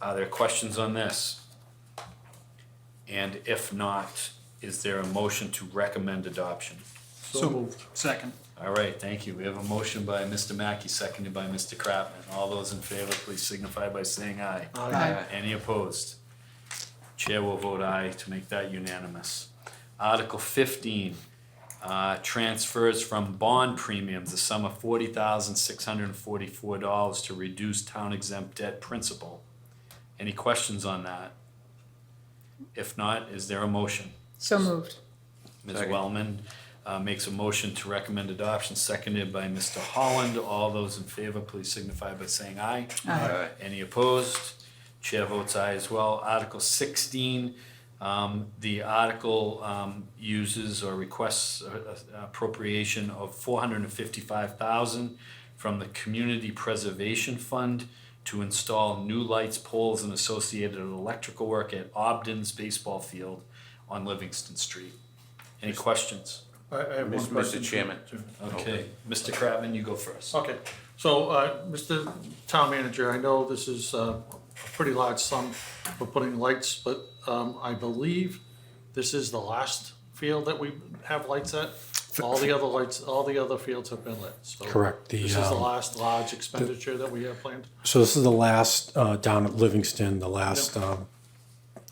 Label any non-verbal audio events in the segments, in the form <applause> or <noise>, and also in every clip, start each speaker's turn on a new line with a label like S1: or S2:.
S1: Are there questions on this? And if not, is there a motion to recommend adoption?
S2: So moved. Second.
S1: All right, thank you. We have a motion by Mr. Mackey, seconded by Mr. Kratman. All those in favor, please signify by saying aye.
S2: Aye.
S1: Any opposed? Chair will vote aye to make that unanimous. Article fifteen, uh, transfers from bond premiums, the sum of forty thousand six hundred and forty-four dollars to reduce town exempt debt principal. Any questions on that? If not, is there a motion?
S3: So moved.
S1: Ms.
S4: Second.
S1: Wellman uh, makes a motion to recommend adoption, seconded by Mr. Holland. All those in favor, please signify by saying aye.
S4: Aye.
S1: Any opposed? Chair votes aye as well. Article sixteen, um, the article, um, uses or requests a- a- appropriation of four hundred and fifty-five thousand from the Community Preservation Fund to install new lights, poles, and associated electrical work at Ogden's baseball field on Livingston Street. Any questions?
S5: I, I have one
S4: Mis- Mr.
S5: question.
S4: Chairman.
S1: Okay, Mr. Kratman, you go first.
S5: Okay, so, uh, Mr. Town Manager, I know this is uh, a pretty large sum for putting lights, but, um, I believe this is the last field that we have lights at. All the other lights, all the other fields have been lit, so.
S6: Correct, the,
S5: This is the
S6: um,
S5: last large expenditure that we have planned.
S6: So this is the last uh, down at Livingston, the last um,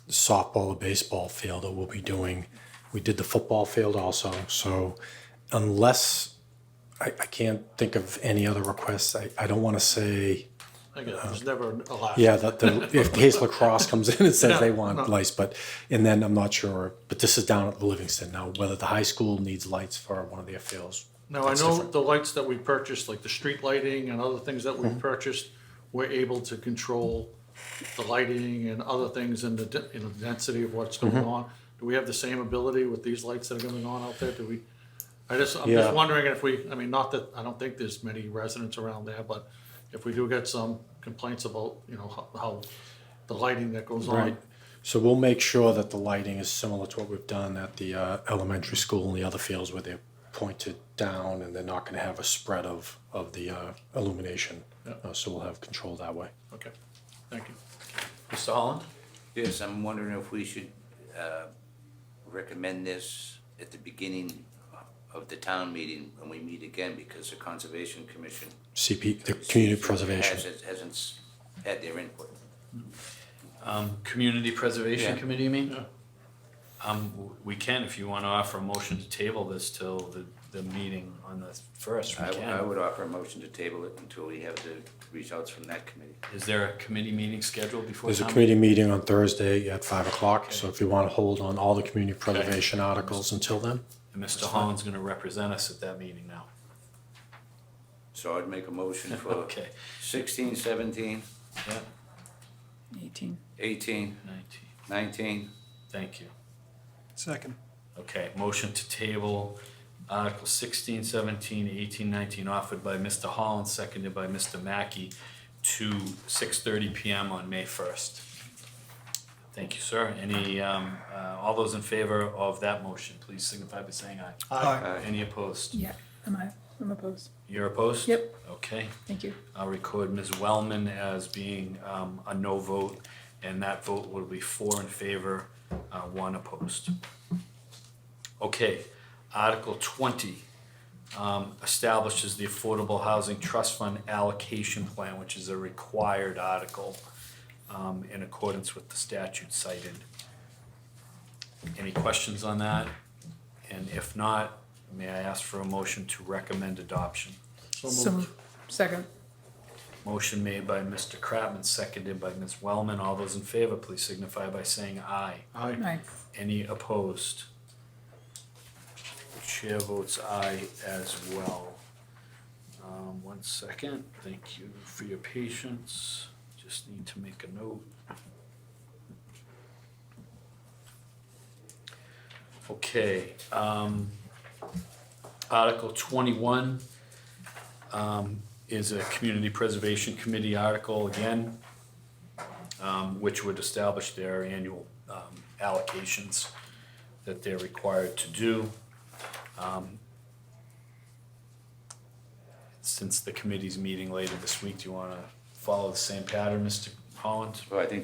S6: softball or baseball field that we'll be doing. We did the football field also. So unless I, I can't think of any other requests, I, I don't want to say
S5: Again, there's never a last.
S6: uh, yeah that the if case lacrosse comes in and says
S5: No,
S6: they want
S5: no.
S6: lights, but and then I'm not sure. But this is down at Livingston now. Whether the high school needs lights for one of their fields,
S5: Now, I
S6: That's
S5: know
S6: different.
S5: the lights that we purchased, like the street lighting and other things that we
S6: Mm-hmm.
S5: purchased, we're able to control the lighting and other things and the, de- you know, density of what's
S6: Mm-hmm.
S5: going on. Do we have the same ability with these lights that are going on out there? Do we, I just, I'm
S6: Yeah.
S5: just wondering if we, I mean, not that, I don't think there's many residents around there, but if we do get some complaints about, you know, how, how the lighting that goes on.
S6: Right. So we'll make sure that the lighting is similar to what we've done at the uh, elementary school and the other fields where they're pointed down and they're not going to have a spread of, of the uh, illumination. Uh, so we'll have control that way.
S5: Okay, thank you.
S1: Mr. Holland?
S4: Oh, Yes, I'm wondering if we should uh, recommend this at the beginning of the town meeting when we meet again, because the Conservation Commission.
S6: CP, the community preservation.
S4: has- Hasn't s- had their input.
S1: Um, Community Preservation
S4: Yeah.
S1: Committee, you mean?
S5: Yeah.
S1: Um, w- we can, if you wanna offer a motion to table this till the, the meeting on the first, we
S4: I I
S1: can.
S4: would offer a motion to table it until we have the results from that committee.
S1: Is there a committee meeting scheduled before
S6: There's a
S1: town?
S6: committee meeting on Thursday at five o'clock. So if you want to hold on all the community preservation articles until then,
S1: meeting? And Mr. Holland's gonna represent us at that meeting now.
S4: So I'd make a motion
S1: <laughs>
S4: for
S1: Okay,
S4: 16, 17,
S1: yeah,
S3: 18.
S4: 18,
S1: nineteen,
S4: 19.
S1: thank you.
S2: Second.
S1: Okay, motion to table Article 16, 17, 18, 19, offered by Mr. Holland, seconded by Mr. Mackey to six thirty PM on May first. Thank you, sir. Any, um, uh, all those in favor of that motion, please signify by saying aye.
S2: Aye.
S4: Aye.
S1: Any opposed?
S3: Yeah, am I? I'm opposed.
S1: You're opposed?
S3: Yep.
S1: Okay,
S3: Thank you.
S1: I'll record Ms. Wellman as being, um, a no vote, and that vote will be four in favor, uh, one opposed. Okay, Article twenty, um, establishes the Affordable Housing Trust Fund allocation plan, which is a required article, um, in accordance with the statute cited. Any questions on that? And if not, may I ask for a motion to recommend adoption?
S3: So
S5: moved.
S3: moved. Second.
S1: Motion made by Mr. Kratman, seconded by Ms. Wellman. All those in favor, please signify by saying aye.
S5: Aye.
S3: Aye.
S1: Any opposed? The Chair votes aye as well. Um, one second, thank you for your patience. Just need to make a note. Okay, um, Article twenty-one, um, is a Community Preservation Committee article again um, which would establish their annual um, allocations that they're required to do. Um, Since the committee's meeting later this week, do you want to follow the same pattern, Mr. Holland?
S4: Well, I think